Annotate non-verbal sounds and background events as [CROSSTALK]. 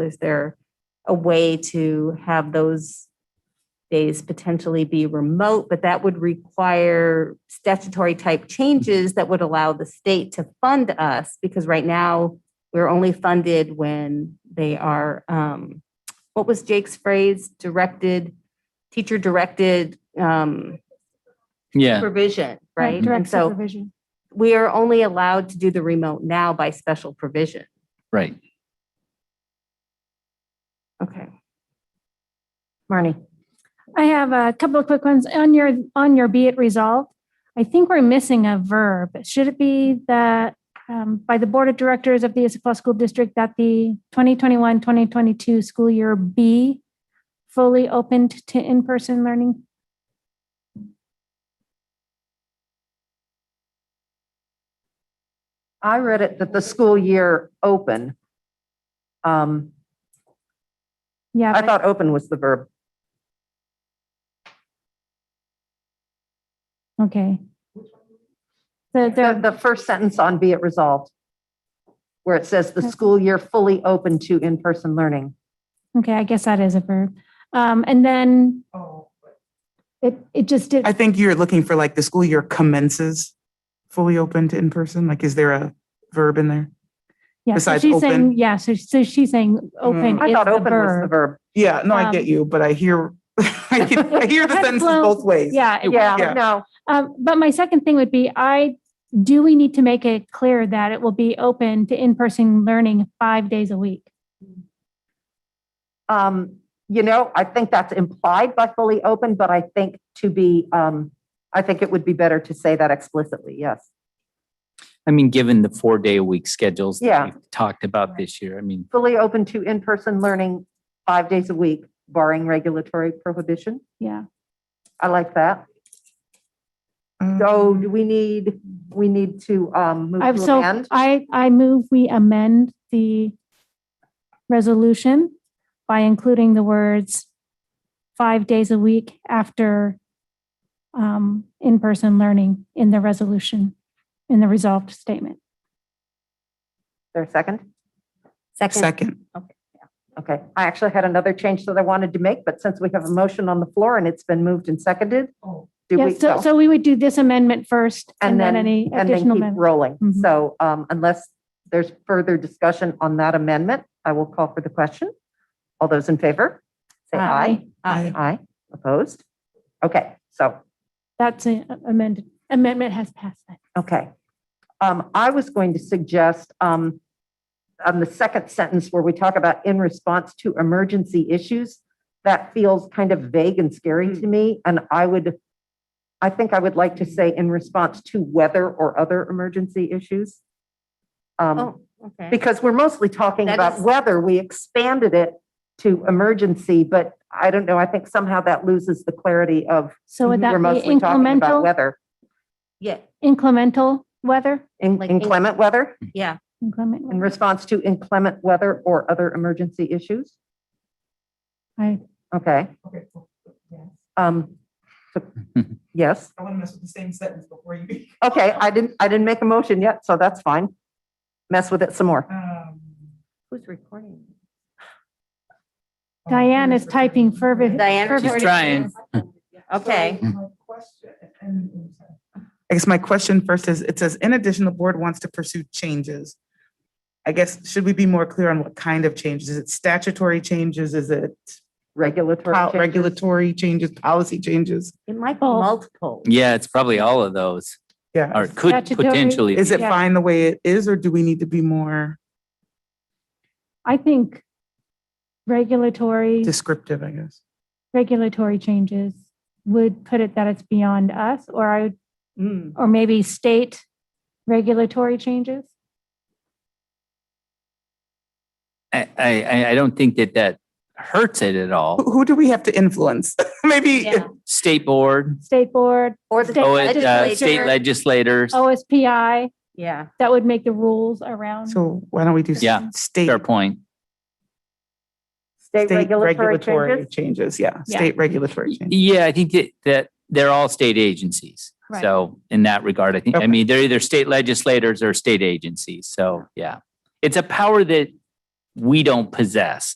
Is there a way to have those days potentially be remote? But that would require statutory type changes that would allow the state to fund us because right now we're only funded when they are, um, what was Jake's phrase? Directed, teacher directed, um, Yeah, provision, right? And Direct so supervision. we are only allowed to do the remote now by special provision. right. Okay. Marnie, I have a couple of quick ones on your, on your be it resolved. I think we're missing a verb. Should it be that um, by the Board of Directors of the Issaquah School District that the 2021, 2022 school year be fully opened to in-person learning? I read it that the school year open. Um, Yeah, I but thought open was the verb. okay. The, The, the, the first sentence on be it resolved. Where it says the school year fully open to in-person learning. okay, I guess that is a verb. Um, And then it, it just did, I think you're looking for like the school year commences fully open to in person. Like, is there a verb in there? yeah, so besides she's saying, open. yeah, so, so she's saying open Mm-hmm. I is thought the open was the verb. verb. Yeah, no, I Um, get you, but I hear, [LAUGHS] I get- I [LAUGHS] hear the Kind of sentences blown- both ways. Yeah, it Yeah. Yeah, no, Um, but my second thing would be, I, do we need to make it clear that it will be open to in-person learning five days a week? um, you know, I think that's implied by fully open, but I think to be, um, I think it would be better to say that explicitly, yes. I mean, given the four day a week schedules Yeah. that we've talked about this year, I mean, Fully open to in-person learning five days a week barring regulatory prohibition. Yeah, I like that. Um, So do we need, we need to um move I've, to Mm-hmm. so amend? I, I move we amend the resolution by including the words five days a week after um, in-person learning in the resolution, in the resolved statement. There a second? Second, Second, Okay, I actually had another change that I wanted to make, but since we have a motion on the floor and it's been moved and seconded, do Yeah, we? so, so we would do this amendment first and then any And then additional. keep amendment. rolling. Mhm. So um unless there's further discussion on that amendment, I will call for the question. All those in favor? Say aye. Aye. Aye, opposed? Okay, so That's a- amended, amendment has passed. then. Okay. Um, I was going to suggest, um, on the second sentence where we talk about in response to emergency issues, that feels kind of vague and scary to Hmm. me, and I would, I think I would like to say in response to weather or other emergency issues. Um, oh, okay. because we're mostly talking That about is- weather, we expanded it to emergency, but I don't know, I think somehow that loses the clarity of So would that we're be mostly talking about incremental, weather, Yeah, incremental weather? in- Like in- inclement weather. yeah. Inclement in weather. response to inclement weather or other emergency issues? I- Okay. Okay, cool. Um, so- yes, I want to mess with the same sentence before you. okay, I didn't, I didn't make a motion yet, so that's fine. Mess with it some more. Who's recording? Oh, Diane is typing fervent. Diane- She's fervent- trying. Okay. I guess my question first is, it says, in addition, the board wants to pursue changes. I guess, should we be more clear on what kind of changes? Is it statutory changes? Is it Regulatory. pol- changes. regulatory changes, policy changes? It might be Both. multiple. yeah, it's probably all of those Yeah. or it could Statutory- potentially. Is it Yeah. fine the way it is, or do we need to be more I think regulatory, descriptive, I guess? regulatory changes would put it that it's beyond us or I, would- Hmm. or maybe state regulatory changes. I, I, I- I don't think that that hurts it at all. Who, who do we have to influence? [LAUGHS] Maybe, Yeah. State board, State board, Or the State Oh. oh, it, uh, legislature. state legislators, OSPI, Yeah, that would make the rules around. so why don't we do? s- Yeah, State. fair point. State state regulatory changes. Changes, yeah, Yeah. state regulatory changes. Yeah, I think that, that they're all state agencies. Right. So in that regard, I think, I Okay. mean, they're either state legislators or state agencies. So, yeah. It's a power that we don't possess.